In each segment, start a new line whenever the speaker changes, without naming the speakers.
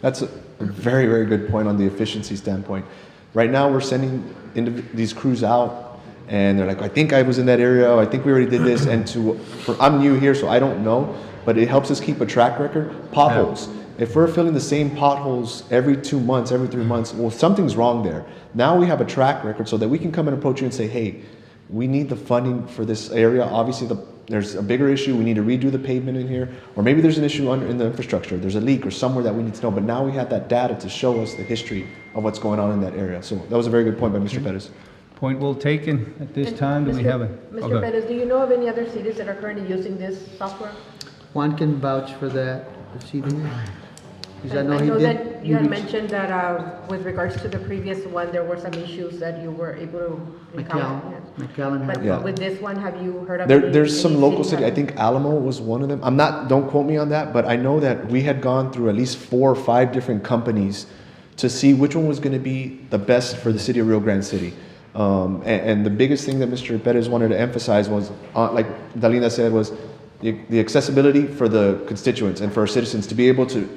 That's a very, very good point on the efficiency standpoint. Right now, we're sending indiv- these crews out, and they're like, "I think I was in that area. I think we already did this." And to, for, I'm new here, so I don't know, but it helps us keep a track record. Potholes. If we're filling the same potholes every two months, every three months, well, something's wrong there. Now we have a track record so that we can come and approach you and say, "Hey, we need the funding for this area. Obviously, the, there's a bigger issue. We need to redo the pavement in here, or maybe there's an issue under, in the infrastructure. There's a leak or somewhere that we need to know. But now we have that data to show us the history of what's going on in that area. So that was a very good point by Mr. Pettis.
Point well taken. At this
And
time, do we
Mr.
have a? oh, go
Mr.
ahead.
Perez, do you know of any other cities that are currently using this software?
Juan can vouch for that this evening. Because I
And
know he
that
did.
you had
reached-
mentioned that uh, with regards to the previous one, there were some issues that you were able to encounter.
McAllen, McAllen had.
Yeah.
But with this one, have you heard of?
There,
any-
there's
any
some local city. I
having-
think Alamo was one of them. I'm not. Don't quote me on that, but I know that we had gone through at least four or five different companies to see which one was going to be the best for the city of Rio Grande City. Um, and, and the biggest thing that Mr. Perez wanted to emphasize was, uh, like Dalina said, was the, the accessibility for the constituents and for our citizens to be able to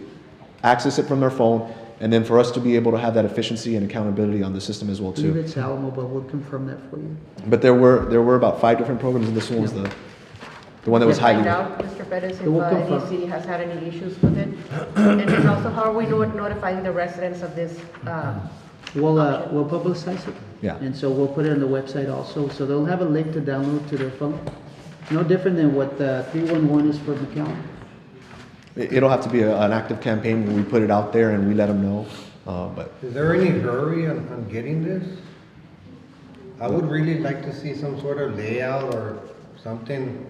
access it from their phone, and then for us to be able to have that efficiency and accountability on the system as well
I believe
too.
it's Alamo, but we'll confirm that for you.
But there were there were about five different programs, and this one was the the one that was
Just find
highly.
out, Mr. Perez, if
will
uh,
confirm.
any city has had any issues with it. And then also, how are we no- notifying the residents of this? uh,
We'll, uh, we'll publicize it.
Yeah.
And so we'll put it on the website also, so they'll have a link to download to their phone. No different than what uh, 311 is for McAllen.
It- It'll have to be a, an active campaign where we put it out there and we let them know. Uh, but
Is there any hurry on, on getting this? I would really like to see some sort of layout or something,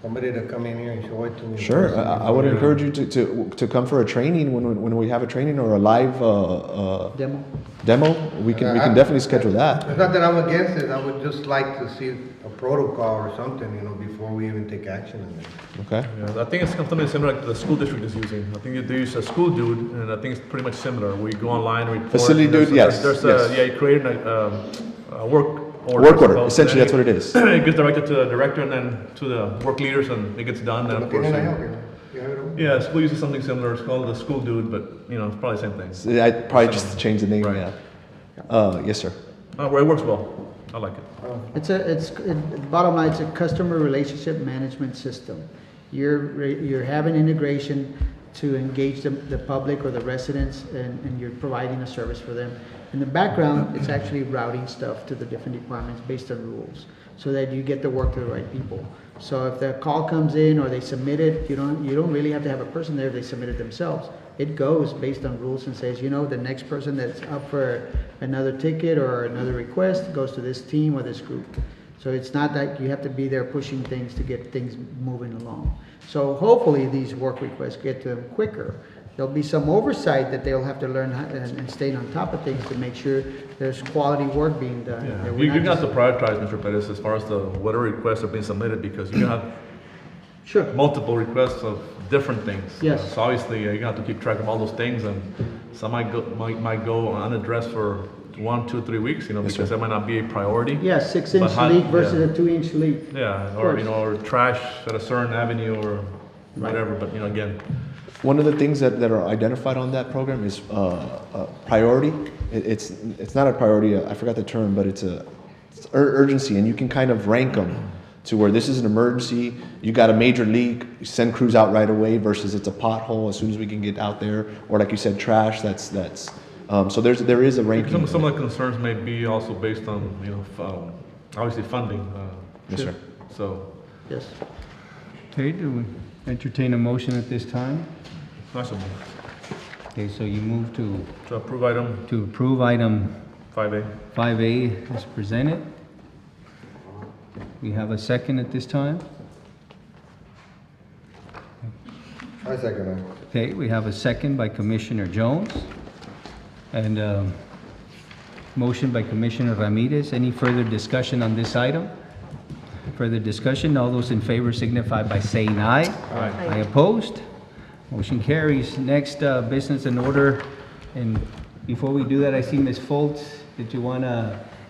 somebody to come in here and show it to me.
sure, I, I would encourage you to, to, to come for a training when, when- when we have a training or a live uh, uh,
Demo.
demo. We can, we can definitely schedule that.
It's not that I'm against it, I would just like to see a protocol or something, you know, before we even take action on it.
Okay.
Yeah, I think it's something similar like the school district is using. I think they use a school dude, and I think it's pretty much similar. We go online, report.
Facility
and there's-
dude, yes,
There's
yes.
there's a, yeah, you create a, um, a work order.
Work order,
Well,
essentially,
then
that's what it is.
It gets directed to the director and then to the work leaders, and it gets done, and of
Can
course.
I help you? You have it over?
Yeah, school uses something similar. It's called the school dude, but, you know, it's probably the same thing.
So I'd probably just change the name.
Right.
Yeah. Uh, yes, sir.
Uh, Well, it works well. I like it.
It's a, it's, it- bottom line, it's a customer relationship management system. You're, re- you're having integration to engage the, the public or the residents, and, and you're providing a service for them. In the background, it's actually routing stuff to the different departments based on rules, so that you get the work to the right people. So if the call comes in or they submit it, you don't, you don't really have to have a person there if they submit it themselves. It goes based on rules and says, you know, the next person that's up for another ticket or another request goes to this team or this group. So it's not that you have to be there pushing things to get things moving along. So hopefully these work requests get to them quicker. There'll be some oversight that they'll have to learn how- and, and stay on top of things to make sure there's quality work being done.
Yeah.
that we're
You- You're
not
gonna have
just-
to prioritize, Mr. Pettis, as far as the, whatever requests are being submitted, because you're gonna have
Sure.
multiple requests of different things.
Yes.
So obviously, uh, you have to keep track of all those things, and some might go, might, might go unaddressed for one, two, three weeks, you know,
Yes,
because
sir.
that might not be a priority.
Yeah, six
But
inch
how-
leak versus
yeah.
a two inch leak.
Yeah, or,
course.
you know, or trash at a certain avenue or whatever, but, you know, again,
One of the things that, that are identified on that program is uh, uh, priority. It, it's it's not a priority. uh, I forgot the term, but it's a it's ur- urgency, and you can kind of rank them to where this is an emergency. You got a major leak, you send crews out right away. Versus it's a pothole as soon as we can get out there, or like you said, trash. That's that's. Um, so there's there is a ranking.
some, some of the concerns may be also based on, you know, f- um, obviously funding, uh,
yes, sir.
so,
Yes.
Okay, do we entertain a motion at this time?
nice of you
Okay, so you move to,
to approve item
to approve item
five A.
5A as presented. We have a second at this time?
I second that.
Okay, we have a second by Commissioner Jones, and um, motion by Commissioner Ramirez. Any further discussion on this item? Further discussion, all those in favor signify by saying aye.
Aye.
I opposed, motion carries. Next, uh, business in order, and before we do that, I see Ms. Foltz, did you want to,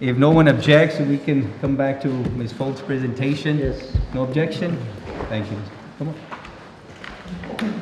if no one objects, we can come back to Ms. Foltz's presentation?
Yes.
No objection? Thank you. Come on.